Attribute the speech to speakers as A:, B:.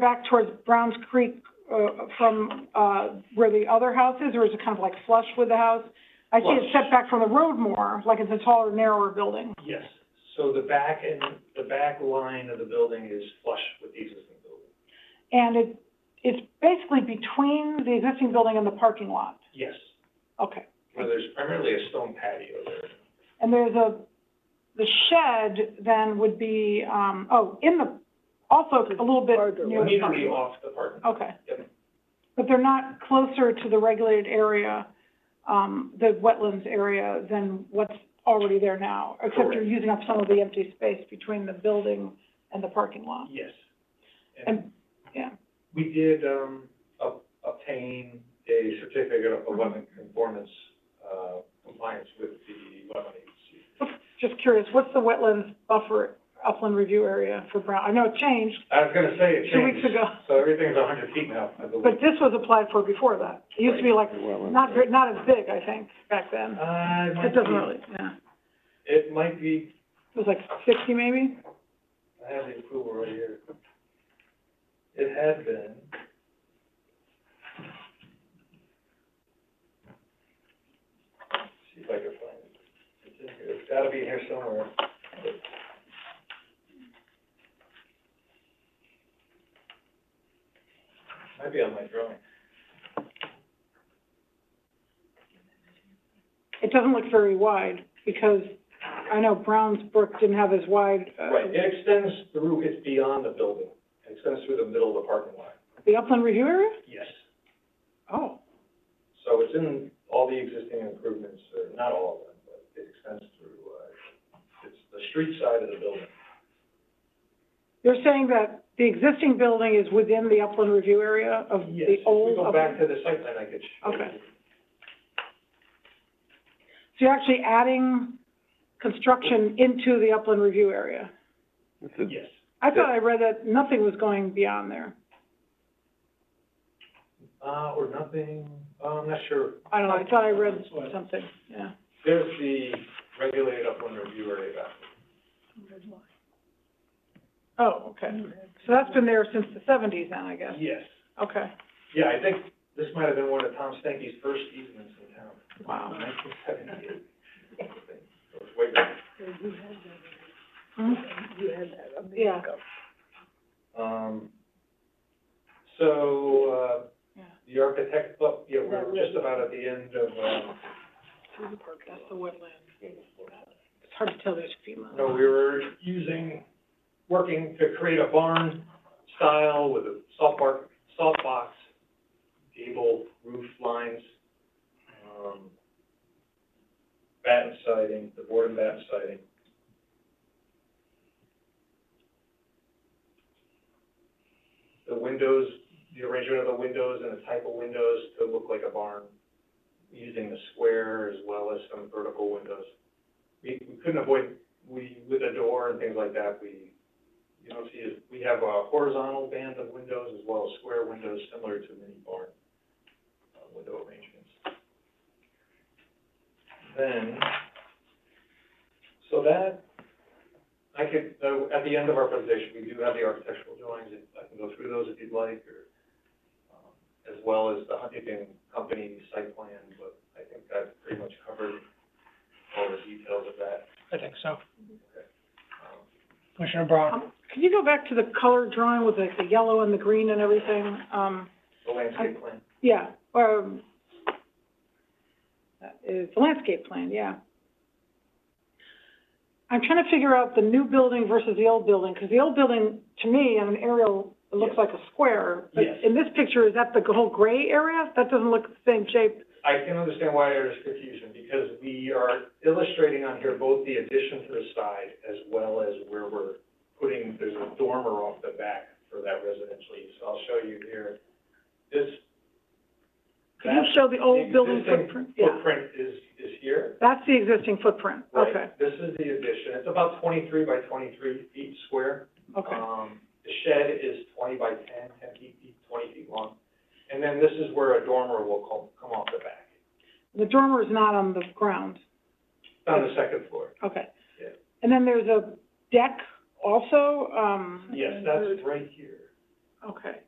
A: back towards Browns Creek, uh, from, uh, where the other house is, or is it kind of like flush with the house? I see it
B: Flush.
A: set back from the road more, like it's a taller, narrower building.
B: Yes, so the back and, the back line of the building is flush with the existing building.
A: And it, it's basically between the existing building and the parking lot.
B: Yes,
A: Okay.
B: where there's primarily a stone patio there.
A: And there's a, the shed then would be, um, oh, in the, also a little bit near the
B: Immediately
A: parking lot.
B: off the parking.
A: Okay.
B: Yep.
A: But they're not closer to the regulated area, um, the wetlands area than what's already there now, except you're
B: Correct.
A: using up some of the empty space between the building and the parking lot.
B: Yes. And
A: Oh. And, yeah,
B: we did, um, ob- obtain a certificate of wetland conformance, uh, compliance with the wetland agency.
A: just curious, what's the wetlands buffer upland review area for Brown? I know it changed,
B: I was gonna say it
A: Two weeks
B: changed.
A: ago.
B: So everything's a hundred feet now, I believe.
A: but this was applied for before that. It used to be like, not, ver- not as big, I think, back then.
B: Uh, it
A: It
B: might
A: doesn't
B: be,
A: really, yeah.
B: it might be,
A: It was like sixty maybe?
B: I have the approval right here. It had been. See if I can find it. It's in here. It's gotta be in here somewhere. Might be on my drawing.
A: It doesn't look very wide, because I know Brown's Brook didn't have as wide, uh,
B: Right, it extends through, it's beyond the building. It extends through the middle of the parking lot.
A: the upland review area?
B: Yes.
A: Oh.
B: So it's in all the existing improvements, or not all of them, but it extends through, uh, it's the street side of the building.
A: You're saying that the existing building is within the upland review area Uh, of the
B: Yes, if
A: old
B: we go back
A: upland?
B: to the site plan, I could show you.
A: Okay. So you're actually adding construction into the upland review area?
B: Yes.
A: I thought I read that nothing was going beyond there.
B: Uh, or nothing, uh, I'm not sure.
A: I don't know, I thought I read something, yeah.
B: There's the regulated upland review area back.
A: Oh, okay. So that's been there since the seventies then, I guess?
B: Yes.
A: Okay,
B: Yeah, I think this might have been one of Tom Stenke's first easements in town.
A: wow.
B: Nineteen seventy-eight. It was way back.
A: Hmm? Yeah,
B: Um, so, uh,
A: Yeah.
B: the architect, oh, yeah, we're just about at the end of, um,
A: that's the woodland. It's hard to tell there's FEMA.
B: no, we were using, working to create a barn style with a salt bark, salt box, gable roof lines, um, batten siding, the board and batten siding. The windows, the arrangement of the windows and the type of windows to look like a barn, using the square as well as some vertical windows. We, we couldn't avoid, we, with a door and things like that, we, you don't see it, we have a horizontal band of windows as well as square windows similar to mini barn, uh, window arrangements. Then, so that, I could, uh, at the end of our presentation, we do have the architectural drawings, if I can go through those if you'd like, or, um, as well as the Huntington Company site plan, but I think I've pretty much covered all the details of that.
C: I think so.
B: Um,
C: Commissioner Brown?
A: Um, Could you go back to the color drawing with like the yellow and the green and everything? Um,
B: The landscape plan,
A: yeah, or, um, that is the landscape plan, yeah. I'm trying to figure out the new building versus the old building, because the old building, to me, on an aerial, it looks
B: Yes.
A: like a square. But
B: Yes.
A: in this picture, is that the whole gray area? That doesn't look the same shape.
B: I can understand why there's confusion, because we are illustrating on here both the addition to the side as well as where we're putting, there's a dormer off the back for that residential use. I'll show you here. This,
A: Could you
B: That's
A: show the old building
B: existing
A: footprint? Yeah,
B: footprint is, is here.
A: that's the existing footprint, okay,
B: Right, this is the addition. It's about twenty-three by twenty-three feet square.
A: okay.
B: Um, the shed is twenty by 10, 10 feet, deep, twenty feet long. And then this is where a dormer will come, come off the back,
A: The dormer is not on the ground,
B: It's on the second floor.
A: okay.
B: Yeah.
A: And then there's a deck also, um.
B: Yes, that's right here.
A: Okay.